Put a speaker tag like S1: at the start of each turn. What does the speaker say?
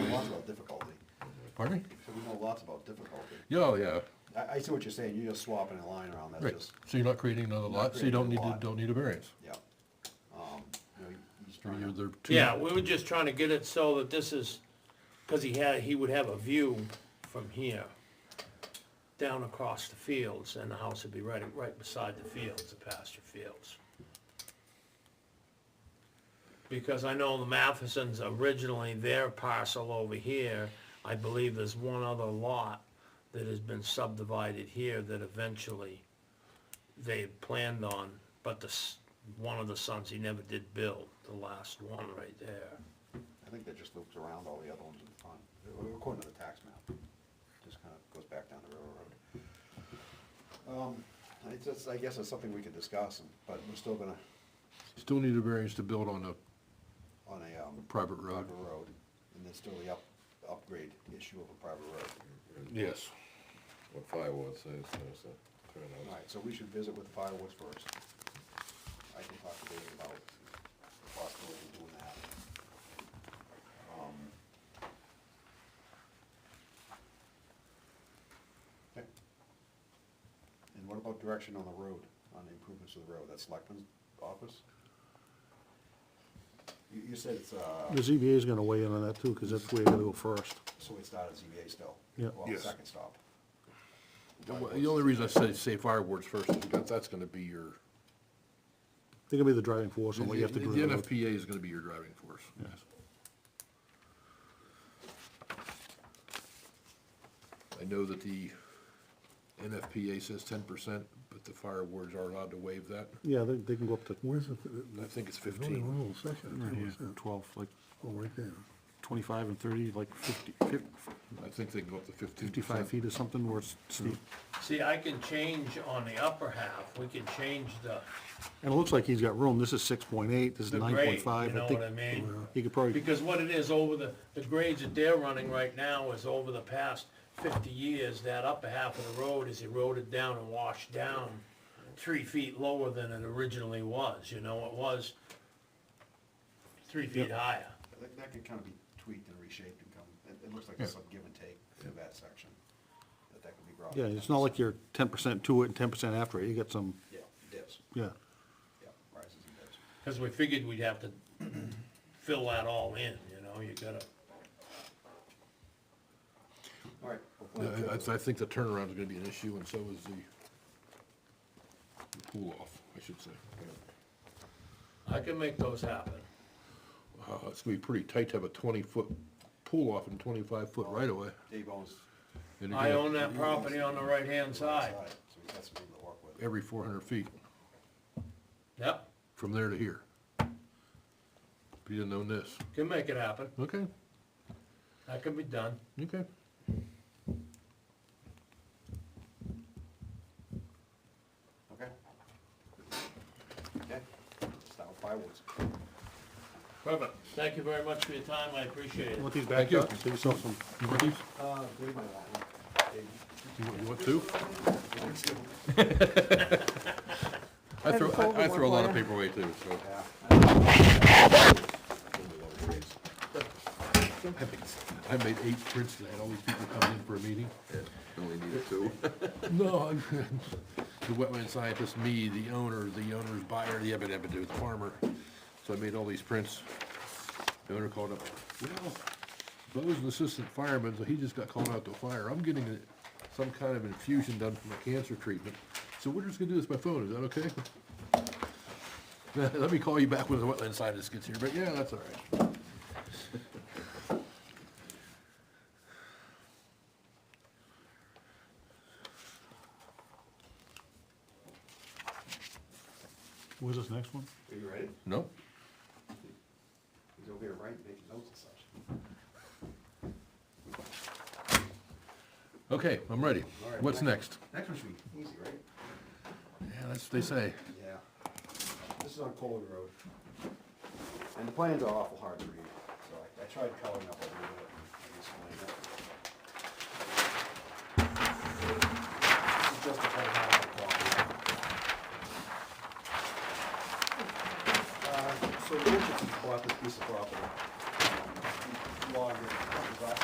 S1: difficulty.
S2: Pardon me?
S1: So we know lots about difficulty.
S2: Yeah, oh, yeah,
S1: I, I see what you're saying, you're just swapping a line around, that's
S2: right.
S1: just,
S2: So you're not creating another lot, so
S1: creating
S2: you don't
S1: a
S2: need, to-
S1: lot.
S2: don't need a variance.
S1: yeah. Um, you know, he's
S2: I mean,
S1: trying
S2: you're-
S1: to-
S2: they're two-
S3: Yeah, we were just trying to get it so that this is, cause he had, he would have a view from here down across the fields and the house would be right, right beside the fields, the pasture fields. Because I know the Mathesons originally, their parcel over here, I believe there's one other lot that has been subdivided here that eventually they had planned on, but the, s- one of the sons, he never did build, the last one right there.
S1: I think that just loops around all the other ones on, according to the tax map. Just kind of goes back down the railroad. Um, I just, I guess it's something we could discuss, and- but we're still gonna,
S2: Still need a variance to build on a
S1: on a, um,
S2: private road.
S1: private road, and there's still the up, upgrade issue of a private road.
S2: Yes.
S4: What firewood says, there's a
S1: All
S4: turnout.
S1: right, so we should visit with fireworks first. I can talk to David about the possibility of doing that. Um, okay. And what about direction on the road, on the improvements of the road? That's Selectman's office? You, you said it's, uh,
S5: The ZBA is gonna weigh in on that too, because that's where you're gonna go first.
S1: so it's not a ZBA still?
S5: Yeah.
S1: Well,
S2: Yes.
S1: second stop.
S2: The wa- the only reason I say, say fireworks first is because that's gonna be your,
S5: They're gonna be the driving force
S2: the
S5: on what you have to do.
S2: the
S5: on the road.
S2: NFPA is gonna be your driving force. Yes. I know that the NFPA says ten percent, but the fire wards are allowed to waive that.
S5: Yeah, they, they can go up to,
S6: Where's the?
S2: I think it's
S6: There's only
S2: 15.
S6: one little section.
S7: Right
S6: too,
S7: here,
S6: is there?
S7: twelve, like
S6: Oh, right there.
S7: twenty-five and thirty, like 50 fif-
S2: I think they can go up to fifteen
S7: fifty-five feet or something where it's steep.
S5: Mm-hmm.
S3: See, I can change on the upper half, we can change the,
S5: and it looks like he's got room, this is six point eight, this is
S3: the
S5: nine
S3: grade,
S5: point
S3: you
S5: five,
S3: know
S5: I
S3: what I
S5: think,
S3: mean?
S5: he could probably,
S3: Because what it is, over the, the grades that they're running right now is over the past fifty years, that upper half of the road is eroded down and washed down three feet lower than it originally was, you know, it was three feet higher.
S1: That, that could kind of be tweaked and reshaped and come, it, it looks like there's some give and take through that section, that that could be brought.
S5: yeah, it's not like you're ten percent to it and ten percent after it, you got some,
S1: Yeah, dips,
S5: yeah.
S1: yeah, rises and dips.
S3: Cause we figured we'd have to fill that all in, you know, you gotta,
S1: All right. we'll
S2: Yeah,
S1: plan
S2: I,
S1: for
S2: I- I think the turnaround is gonna be an issue, and so is the the pool off, I should say.
S3: I can make those happen.
S2: Uh, it's gonna be pretty tight to have a twenty-foot pool off and twenty-five-foot right-of-way.
S1: Dave owns.
S2: And
S3: I
S2: again,
S3: own that property on the right-hand side,
S1: So he's got some people to work with.
S2: Every four hundred feet,
S3: yep,
S2: from there to here. If you didn't own this,
S3: can make it happen,
S2: okay,
S3: that can be done.
S2: okay.
S1: Okay. Okay, start with firewoods.
S3: Perfect. Thank you very much for your time, I appreciate it.
S5: Want these
S2: Thank
S5: back
S2: you.
S5: up, save yourself some,
S2: You want these?
S1: Uh, Dave might want one. Dave,
S2: You want- you want two?
S1: you want two?
S2: I throw,
S8: folded
S2: I I
S8: one
S2: throw a lot of
S8: for
S2: paper away too, so.
S1: Yeah.
S2: I made- I made eight prints today, I had all these people coming in for a meeting.
S4: Only needed two.
S2: No, I'm- the wetland scientist, me, the owner, the owner's buyer, the evidence to do with the farmer. So I made all these prints. The owner called up, well, Bo's an assistant fireman, so he just got called out to a fire. I'm getting a- some kind of infusion done for my cancer treatment. So we're just gonna do this by phone, is that okay? Let me call you back when the wetland scientist gets here, but yeah, that's all right.
S5: where's this next one?
S1: Are you ready?
S2: No?
S1: He's over here writing, making notes and such.
S2: Okay, I'm ready.
S1: All right,
S2: What's next?
S1: Next one should be easy, right?
S2: Yeah, that's what they say.
S1: Yeah. This is on Colwood Road. And the plans are awful hard to read, so I, I tried coloring up a little bit. Uh, Um,